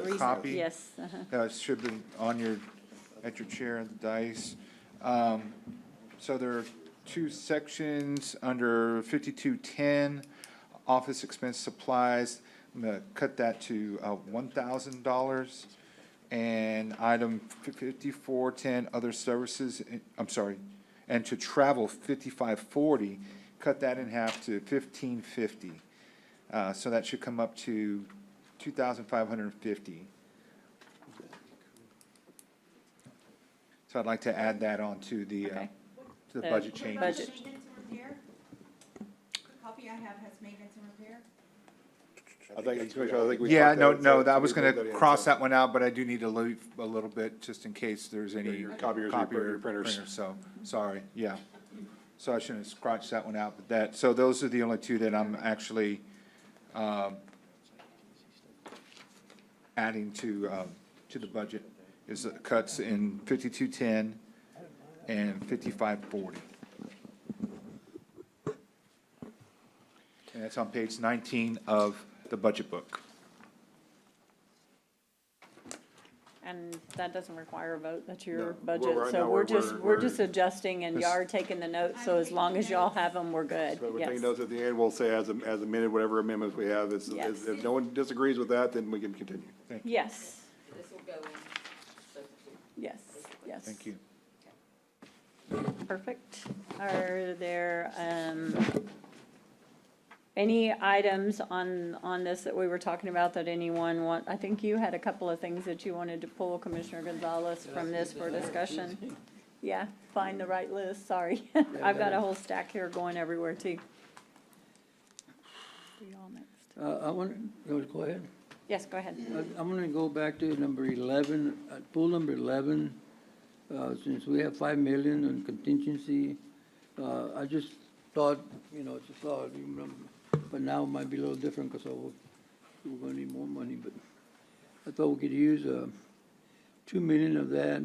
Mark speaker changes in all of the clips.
Speaker 1: The copy?
Speaker 2: Yes, uh-huh.
Speaker 1: Yeah, it should be on your, at your chair at the dais. Um, So there are two sections under fifty-two ten, office expense supplies. I'm gonna cut that to uh, one thousand dollars. And item fifty-four ten, other services, eh, I'm sorry, and to travel fifty-five forty, cut that in half to fifteen fifty. Uh, So that should come up to two thousand five hundred and fifty. So I'd like to add that on to the, uh,
Speaker 2: Okay.
Speaker 1: to the
Speaker 2: Uh,
Speaker 1: budget
Speaker 2: Budget.
Speaker 1: changes.
Speaker 2: Budget.
Speaker 3: Maintenance and repair? The copy I have has maintenance and repair.
Speaker 4: I think, it's- I think we.
Speaker 1: Yeah,
Speaker 4: talked
Speaker 1: no,
Speaker 4: that it's
Speaker 1: no,
Speaker 4: a-
Speaker 1: that was
Speaker 4: we
Speaker 1: gonna
Speaker 4: talked that it's a-
Speaker 1: cross that one out, but I do need to leave a little bit, just in case there's any.
Speaker 4: your copiers, your
Speaker 1: copy
Speaker 4: printer-
Speaker 1: or
Speaker 4: your printers.
Speaker 1: printer, So, sorry, yeah. So I shouldn't have scratched that one out, but that, so those are the only two that I'm actually, um, adding to, um, to the budget, is the cuts in fifty-two-ten and fifty-five-forty. And that's on page nineteen of the budget book.
Speaker 2: and that doesn't require a vote, that's your
Speaker 4: No. Well,
Speaker 2: budget,
Speaker 4: right
Speaker 2: so
Speaker 4: now,
Speaker 2: we're
Speaker 4: we're-
Speaker 2: just,
Speaker 4: we're-
Speaker 2: we're just adjusting and
Speaker 1: This-
Speaker 2: y'all are taking the notes, so
Speaker 3: I'm
Speaker 2: as long as y'all
Speaker 3: taking
Speaker 2: have them, we're good,
Speaker 4: So we're
Speaker 2: yes.
Speaker 4: taking those at the end, we'll say as, as amended, whatever amendments we have, it's,
Speaker 2: Yes.
Speaker 4: if no one disagrees with that, then we can continue.
Speaker 2: Yes,
Speaker 5: This will go in substitute.
Speaker 2: yes, yes.
Speaker 1: Thank you.
Speaker 2: Perfect. Are there, um, any items on, on this that we were talking about that anyone want, I think you had a couple of things that you wanted to pull, Commissioner Gonzalez, from this for discussion. Yeah, find the right list, sorry. I've got a whole stack here going everywhere too. We all next.
Speaker 6: Uh, I want, no, go ahead.
Speaker 2: Yes, go ahead.
Speaker 6: I- I'm gonna go back to number eleven, uh, pool number eleven, uh, since we have five million in contingency. Uh, I just thought, you know, it's a thought, you know, but now it might be a little different because we're gonna need more money, but I thought we could use, uh, two million of that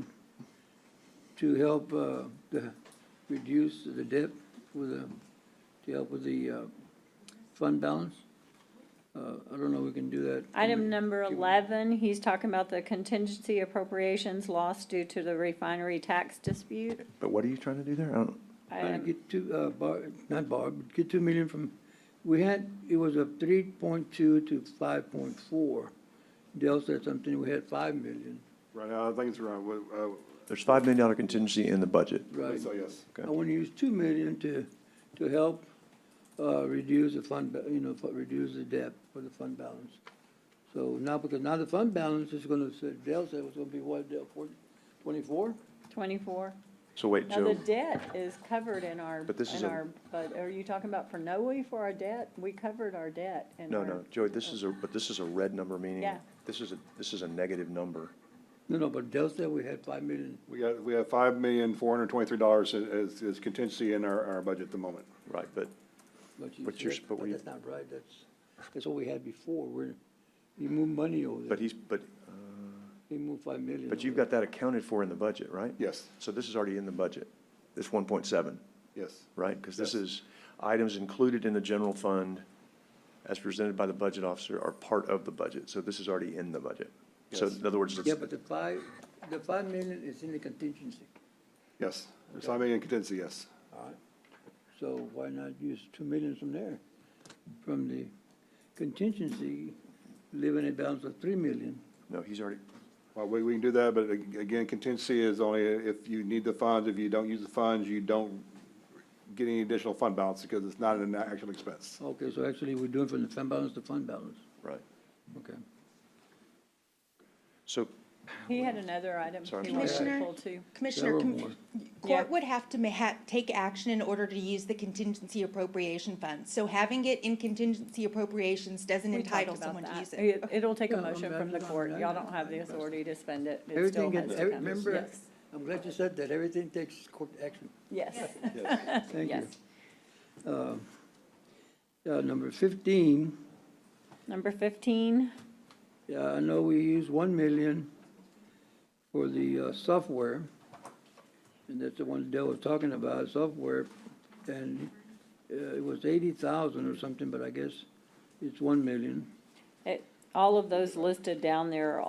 Speaker 6: to help, uh, the, reduce the debt with the, to help with the, uh, fund balance. Uh, I don't know, if we can do that.
Speaker 2: Item number eleven, he's talking about the contingency appropriations lost due to the refinery tax dispute.
Speaker 7: But what are you trying to do there? I don't,
Speaker 6: Trying to
Speaker 2: Um,
Speaker 6: get two, uh, bar, not bar, but get two million from, we had, it was a three point two to five point four. Dell said something, we had five million,
Speaker 4: Right now, I think it's around, uh,
Speaker 7: there's five million dollar contingency in the budget.
Speaker 6: right?
Speaker 4: so yes.
Speaker 6: I want to use two million to, to help, uh, reduce the fund, ba- you know, fu- reduce the debt for the fund balance. So now, because now the fund balance is gonna, said- Dell said it was gonna be what, Dell, four, twenty-four?
Speaker 2: Twenty-four.
Speaker 7: So wait,
Speaker 2: Now, the
Speaker 7: Joe,
Speaker 2: debt is covered in our,
Speaker 7: But this is
Speaker 2: in
Speaker 7: a-
Speaker 2: our, but are you talking about for Noe for our debt? We covered our debt and
Speaker 7: no, no, Joey, this is a, but this is a red number, meaning
Speaker 2: Yeah.
Speaker 7: this is a, this is a negative number.
Speaker 6: No, no, but Dell said we had five million.
Speaker 4: We got, we have five million, four hundred and twenty-three dollars as, as contingency in our, our budget at the moment.
Speaker 7: Right, but
Speaker 6: But you
Speaker 7: But you're
Speaker 6: said-
Speaker 7: sp- but we-
Speaker 6: that's not right, that's, that's what we had before, we're, you move money over there.
Speaker 7: But he's, but,
Speaker 6: He moved five million.
Speaker 7: but
Speaker 6: over
Speaker 7: you've
Speaker 6: there.
Speaker 7: got that accounted for in the budget, right?
Speaker 4: Yes,
Speaker 7: So this is already in the budget, this one point seven,
Speaker 4: yes.
Speaker 7: right? Because this
Speaker 4: Yes.
Speaker 7: is, items included in the general fund as presented by the budget officer are part of the budget. So this is already in the budget. So
Speaker 4: Yes.
Speaker 7: in other words, it's-
Speaker 6: Yeah, but the five, the five million is in the contingency,
Speaker 4: Yes, There's five million contingency, yes.
Speaker 6: all right? So why not use two million from there? From the contingency, leaving a balance of three million.
Speaker 7: no, he's already,
Speaker 4: Well, we, we can do that, but a- again, contingency is only if you need the funds, if you don't use the funds, you don't get any additional fund balance because it's not an actual expense.
Speaker 6: Okay, so actually, we're doing from the fund balance to fund balance,
Speaker 7: right.
Speaker 6: okay?
Speaker 7: So
Speaker 2: He had another item
Speaker 7: Sorry,
Speaker 2: he
Speaker 7: I'm
Speaker 2: wanted to
Speaker 8: sorry.
Speaker 2: pull too.
Speaker 8: Commissioner, com-
Speaker 6: Several
Speaker 2: Yeah.
Speaker 8: court would have to ma- ha- take action in order to use the contingency appropriation fund. So having it in contingency appropriations doesn't
Speaker 2: We talked
Speaker 8: entitle
Speaker 2: about
Speaker 8: someone to
Speaker 2: that.
Speaker 8: use it.
Speaker 2: It- It'll take a
Speaker 6: Yeah, I'm
Speaker 2: motion
Speaker 6: glad
Speaker 2: from the
Speaker 6: it's on
Speaker 2: court.
Speaker 6: there.
Speaker 2: Y'all don't have the authority to spend it. It still
Speaker 6: Everything,
Speaker 2: has
Speaker 6: gets-
Speaker 2: to
Speaker 6: every-
Speaker 2: come.
Speaker 6: remember,
Speaker 2: Yes,
Speaker 6: I'm glad you said that, everything takes court action.
Speaker 2: yes,
Speaker 6: Thank
Speaker 2: yes.
Speaker 6: you. Uh, number fifteen,
Speaker 2: Number fifteen,
Speaker 6: Yeah, I know we use one million for the uh, software, and that's the one Dell was talking about, software, and uh, it was eighty thousand or something, but I guess it's one million.
Speaker 2: it, all of those listed down there are